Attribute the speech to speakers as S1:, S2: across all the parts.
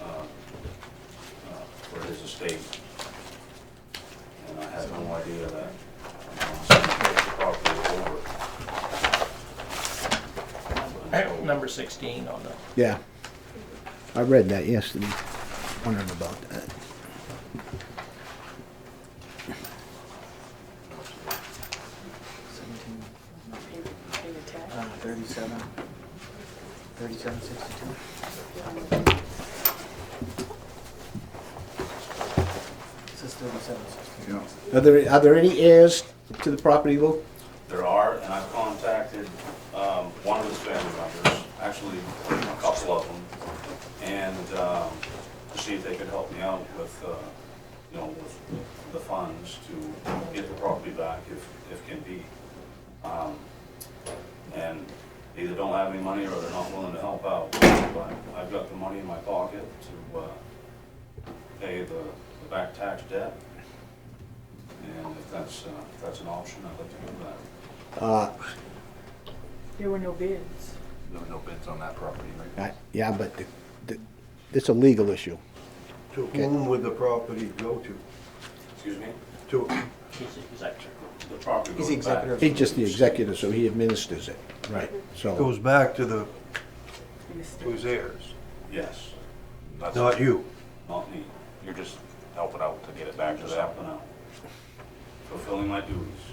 S1: uh,
S2: sixteen on the,
S3: Yeah. I read that yesterday, wondering about that.
S4: Seventeen,
S5: Pay- pay your tax.
S4: uh, thirty-seven, thirty-seven sixty-two. It says thirty-seven sixty-two.
S6: Yeah.
S3: Are there, are there any heirs to the property, Lou?
S1: There are, and I've contacted um, one of his family members, actually a couple of them, and um, to see if they could help me out with, uh, you know, with the funds to get the property back if, if can be. Um, And they either don't have any money or they're not willing to help out. But I've got the money in my pocket to uh, pay the the back tax debt. And if that's, uh, if that's an option, I'd like to do that.
S3: Uh,
S5: There were no bids.
S6: There were no bids on that property, right?
S3: I- yeah, but the- the- it's a legal issue.
S7: To whom would the property go to?
S1: Excuse me?
S7: To,
S2: he's executive.
S1: The property
S4: He's
S1: goes back.
S4: executor.
S3: He's just the executor, so he administers it. Right. So,
S7: goes back to the,
S5: in the state.
S7: to his heirs,
S1: Yes. That's
S7: not you.
S1: Not me,
S6: You're just helping out to get it
S1: I'm
S6: back to
S1: just
S6: that.
S1: helping out. Fulfilling my duties.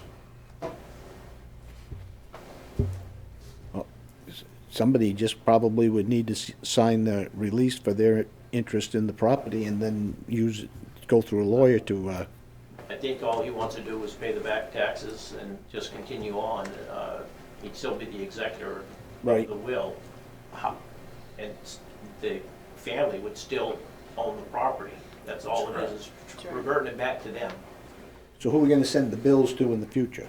S3: somebody just probably would need to s- sign the release for their interest in the property and then use, go through a lawyer to, uh,
S2: I think all he wants to do is pay the back taxes and just continue on. Uh, He'd still be the executor of
S3: Right.
S2: the will. How- And s- the family would still own the property. That's all it is, is
S5: Sure.
S2: reverting it back to them.
S3: so who are we gonna send the bills to in the future?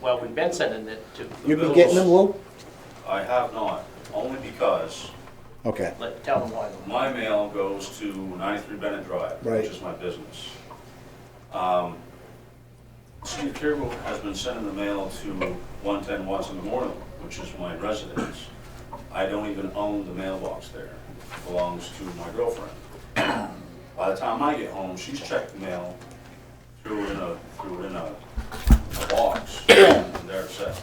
S2: Well, we've been sending it to. the
S3: You've been
S2: bills.
S3: getting them, Lou?
S1: I have not, only because
S3: Okay,
S2: Let, tell them why.
S1: my mail goes to 93 Bennett Drive,
S3: Right.
S1: which is my business. Um, Steve Kirby has been sending the mail to 110 Watson Memorial, which is my residence. I don't even own the mailbox there. It belongs to my girlfriend. By the time I get home, she's checked the mail, threw it in a, threw it in a a box, and there it sits.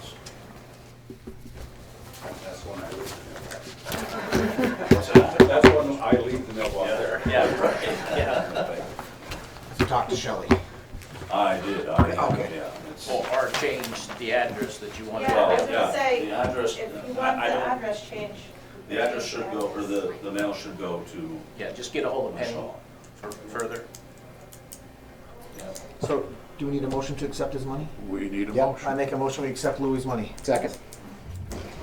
S1: That's when I leave the mailbox. That's when I leave the mailbox there.
S2: Yeah, right, yeah.
S4: So talk to Shelley.
S1: I did, I,
S4: Okay.
S1: yeah. it's-
S2: Or, or change the address that you want. to
S8: Yeah, I was
S1: Well,
S2: have.
S8: gonna
S1: yeah,
S8: say,
S1: the address,
S8: if you
S1: I-
S8: want
S1: I
S8: the
S1: don't-
S8: address change.
S1: The address should go, or the, the mail should go to
S2: Yeah, just get a hold of Penny
S1: Michelle.
S2: for further.
S4: So, do we need a motion to accept his money?
S6: We need a
S3: Yep.
S4: I
S6: motion.
S4: make a motion, we accept Louis' money.
S3: second.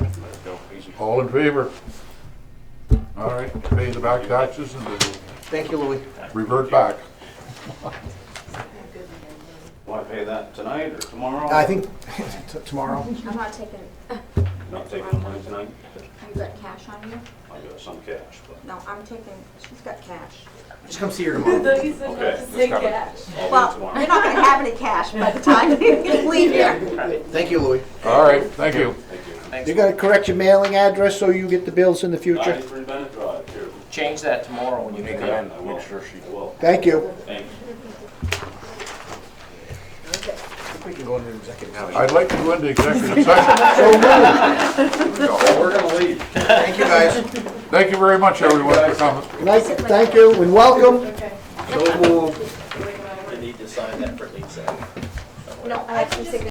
S4: Oh.
S6: All in favor? All right, pay the back taxes and they
S4: Thank you, Louis.
S6: will revert back.
S1: Want to pay that tonight or
S3: Uh,
S1: tomorrow?
S4: I think t- tomorrow.
S9: I'm not taking,
S1: Not taking the money tonight?
S9: you got cash on you?
S1: I got some cash, but.
S9: No, I'm taking, she's got cash.
S4: Just come see her tomorrow.
S8: He said not
S1: Okay,
S8: to say cash.
S1: I'll
S9: Well,
S1: leave
S9: you're
S1: tomorrow.
S9: not gonna have any cash by the time you leave here.
S4: Thank you, Louis.
S6: All right, thank you.
S1: Thank you.
S3: You gotta correct your mailing address so you get the bills in the future.
S1: Ninety-three Bennett Drive, here.
S2: Change that tomorrow when you make it.
S1: I will. I will.
S3: Thank you.
S1: Thanks.
S4: I think we can go into executive. session.
S6: I'd like to go into executive session.
S1: We're gonna leave.
S4: Thank you, guys.
S6: Thank you very much, everyone, for coming.
S3: Nice, thank you, and welcome.
S8: Okay.
S4: So moved.
S2: You need to sign that for Lisa.
S9: No, I have some signature